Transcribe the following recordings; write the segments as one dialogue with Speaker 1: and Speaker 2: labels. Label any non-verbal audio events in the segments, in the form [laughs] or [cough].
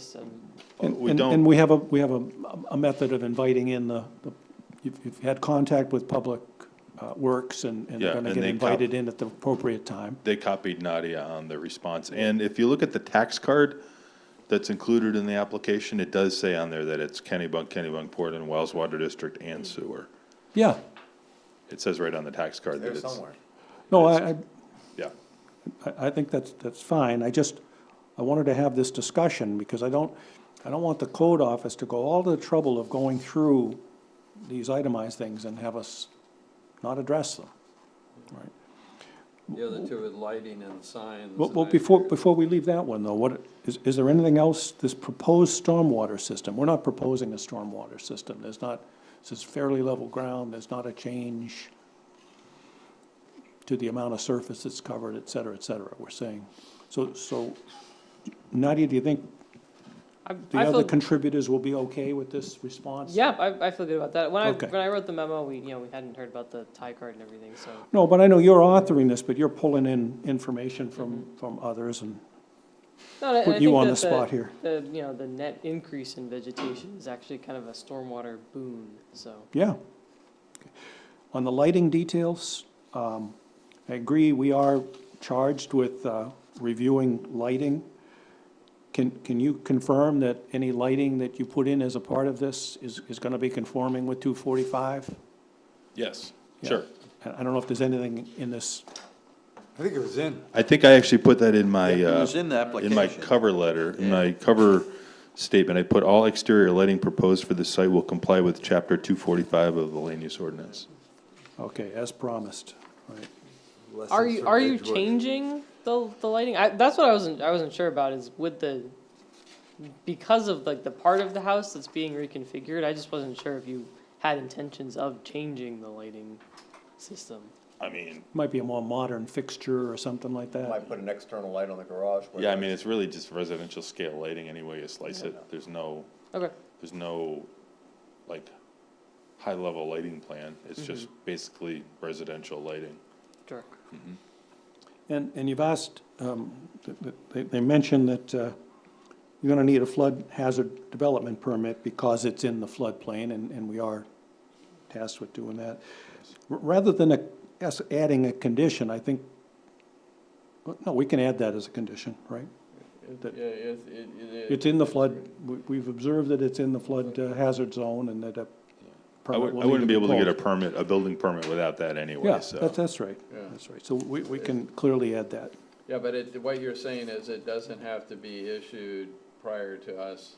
Speaker 1: system.
Speaker 2: And,
Speaker 3: We
Speaker 2: and-
Speaker 3: don't-
Speaker 2: and we have a, we have a, a method of inviting in the, the- you've, you've had contact with Public uh, Works and, and
Speaker 3: Yeah,
Speaker 2: they're gonna
Speaker 3: and
Speaker 2: get
Speaker 3: they cop-
Speaker 2: invited in at the appropriate time.
Speaker 3: They copied Nadia on the response. And if you look at the tax card that's included in the application, it does say on there that it's Kennybunk, Kennybunk, Portland, Wells Water District, and Sewer.
Speaker 2: Yeah,
Speaker 3: It says right on the tax card that
Speaker 4: There
Speaker 3: it's,
Speaker 4: somewhere.
Speaker 2: no, I, I,
Speaker 3: yeah.
Speaker 2: I, I think that's, that's fine, I just, I wanted to have this discussion, because I don't, I don't want the code office to go all the trouble of going through these itemized things and have us not address them.
Speaker 5: The other two are lighting and signs.
Speaker 2: Well,
Speaker 5: and
Speaker 2: well,
Speaker 5: I-
Speaker 2: before, before we leave that one, though, what, is, is there anything else, this proposed stormwater system? We're not proposing a stormwater system, there's not, this is fairly level ground, there's not a change to the amount of surface that's covered, et cetera, et cetera, we're saying. So, so Nadia, do you think
Speaker 1: I,
Speaker 2: the
Speaker 1: I
Speaker 2: other
Speaker 1: feel,
Speaker 2: contributors will be okay with this response?
Speaker 1: yeah, I, I feel good about that. When I,
Speaker 2: Okay.
Speaker 1: when I wrote the memo, we, you know, we hadn't heard about the tie card and everything, so.
Speaker 2: No, but I know you're authoring this, but you're pulling in information from, from others and
Speaker 1: No, and Mm-hmm. I- and I
Speaker 2: putting you
Speaker 1: think
Speaker 2: on
Speaker 1: that
Speaker 2: the spot here.
Speaker 1: The, you know, the net increase in vegetation is actually kind of a stormwater boon, so.
Speaker 2: Yeah. On the lighting details, um, I agree, we are charged with, uh, reviewing lighting. Can, can you confirm that any lighting that you put in as a part of this is, is gonna be conforming with two forty-five?
Speaker 3: Yes,
Speaker 2: Yeah.
Speaker 3: sure.
Speaker 2: I I don't know if there's anything in this,
Speaker 4: I think it was in.
Speaker 3: I think I actually put that in my,
Speaker 4: It
Speaker 3: uh,
Speaker 4: was in the
Speaker 3: in my
Speaker 4: application.
Speaker 3: cover letter, in my cover statement. I put all exterior lighting proposed for this site will comply with chapter two forty-five of the land use ordinance.
Speaker 2: okay, as promised, right?
Speaker 1: Are you, are you changing the, the lighting? I, that's what I wasn't, I wasn't sure about is with the, because of like the part of the house that's being reconfigured, I just wasn't sure if you had intentions of changing the lighting system.
Speaker 3: I mean,
Speaker 2: Might be a more modern fixture or something like that.
Speaker 4: Might put an external light on the garage. where
Speaker 3: yeah, I mean,
Speaker 4: there's-
Speaker 3: it's really just residential scale lighting anyway, you slice it. There's no.
Speaker 1: Okay.
Speaker 3: there's no, like, high-level lighting plan, it's just basically residential lighting.
Speaker 1: Sure.
Speaker 2: And, and you've asked, um, th- th- they, they mentioned that, uh, you're gonna need a flood hazard development permit because it's in the floodplain, and, and we are tasked with doing that. R- Rather than a, us adding a condition, I think, well, no, we can add that as a condition, right? That-
Speaker 5: Yeah, it, it, it
Speaker 2: It's in the flood, we, we've observed that it's in the flood uh, hazard zone and that a
Speaker 3: I
Speaker 2: permit
Speaker 3: would,
Speaker 2: will
Speaker 3: I
Speaker 2: need
Speaker 3: wouldn't be able to get a
Speaker 2: pulled.
Speaker 3: permit, a building permit without that
Speaker 2: Yeah,
Speaker 3: anyway,
Speaker 2: that's,
Speaker 3: so.
Speaker 2: that's right,
Speaker 5: Yeah.
Speaker 2: that's right, so we, we can clearly add that.
Speaker 5: Yeah, but it, what you're saying is it doesn't have to be issued prior to us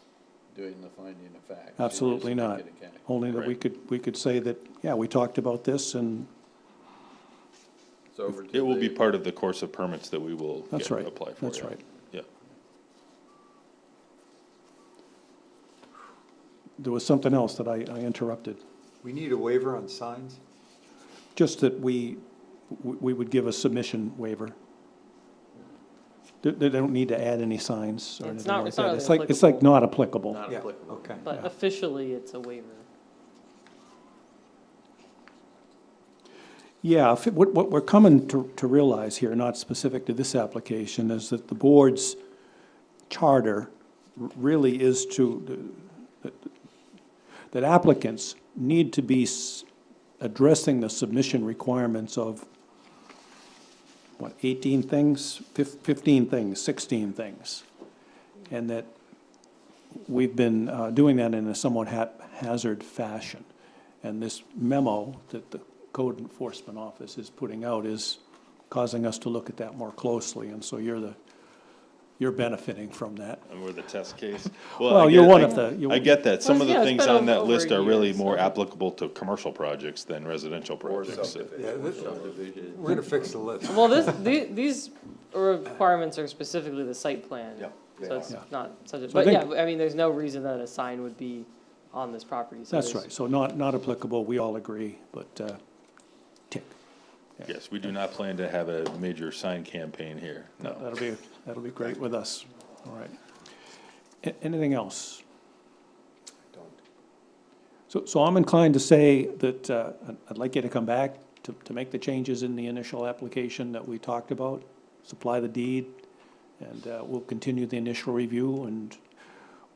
Speaker 5: doing the finding of fact. You just
Speaker 2: Absolutely
Speaker 5: make
Speaker 2: not.
Speaker 5: it a can-
Speaker 2: Only that we
Speaker 3: Right.
Speaker 2: could, we could say that, yeah, we talked about this and,
Speaker 5: It's over to
Speaker 3: It will be
Speaker 5: the-
Speaker 3: part of the course of permits that we will
Speaker 2: that's
Speaker 3: get,
Speaker 2: right.
Speaker 3: apply for.
Speaker 2: That's
Speaker 3: yeah.
Speaker 2: right.
Speaker 3: Yeah,
Speaker 2: There was something else that I, I interrupted.
Speaker 6: We need a waiver on signs?
Speaker 2: Just that we, we we would give a submission waiver. They, they don't need to add any signs or
Speaker 1: It's
Speaker 2: anything
Speaker 1: not-
Speaker 2: like
Speaker 1: it's not
Speaker 2: that.
Speaker 1: really
Speaker 2: It's like, it's like
Speaker 1: applicable.
Speaker 2: not applicable.
Speaker 5: Not
Speaker 6: Yeah,
Speaker 5: applicable.
Speaker 6: Okay.
Speaker 1: But
Speaker 2: Yeah.
Speaker 1: officially, it's a waiver.
Speaker 2: Yeah, if it- what, what we're coming to, to realize here, not specific to this application, is that the board's charter r- really is to, that applicants need to be s- addressing the submission requirements of, what, 18 things, Fif- 15 things, 16 things? And that we've been uh, doing that in a somewhat haphazard fashion. And this memo that the code enforcement office is putting out is causing us to look at that more closely. And so you're the, you're benefiting from that.
Speaker 3: and we're the test
Speaker 2: [laughs]
Speaker 3: case.
Speaker 2: Well,
Speaker 3: I
Speaker 2: you're
Speaker 3: get-
Speaker 2: one
Speaker 3: I-
Speaker 2: of the- you-
Speaker 3: I get that, some of
Speaker 1: Well,
Speaker 3: the
Speaker 1: yeah, it's
Speaker 3: things
Speaker 1: been
Speaker 3: on
Speaker 1: over-
Speaker 3: that
Speaker 1: over
Speaker 3: list
Speaker 1: a
Speaker 3: are
Speaker 1: year,
Speaker 3: really
Speaker 1: so-
Speaker 3: more applicable to commercial projects than residential
Speaker 4: Or
Speaker 3: projects. so-
Speaker 4: subdivision.
Speaker 6: We're gonna fix the list.
Speaker 1: Well, this, the- these requirements are specifically the site plan.
Speaker 4: Yeah, they
Speaker 1: So it's
Speaker 2: are.
Speaker 1: not such a,
Speaker 2: So I
Speaker 1: but yeah,
Speaker 2: think-
Speaker 1: I mean, there's no reason that a sign would be on this property. so
Speaker 2: That's
Speaker 1: there's-
Speaker 2: right. So not, not applicable, we all agree, but uh, tick.
Speaker 3: Yes, we do not plan to have a major sign campaign here, no.
Speaker 2: That'll be, that'll be great with us. All right. A- Anything else?
Speaker 4: Don't.
Speaker 2: So, so I'm inclined to say that uh, I'd- I'd like you to come back to, to make the changes in the initial application that we talked about, supply the deed, and uh, we'll continue the initial review and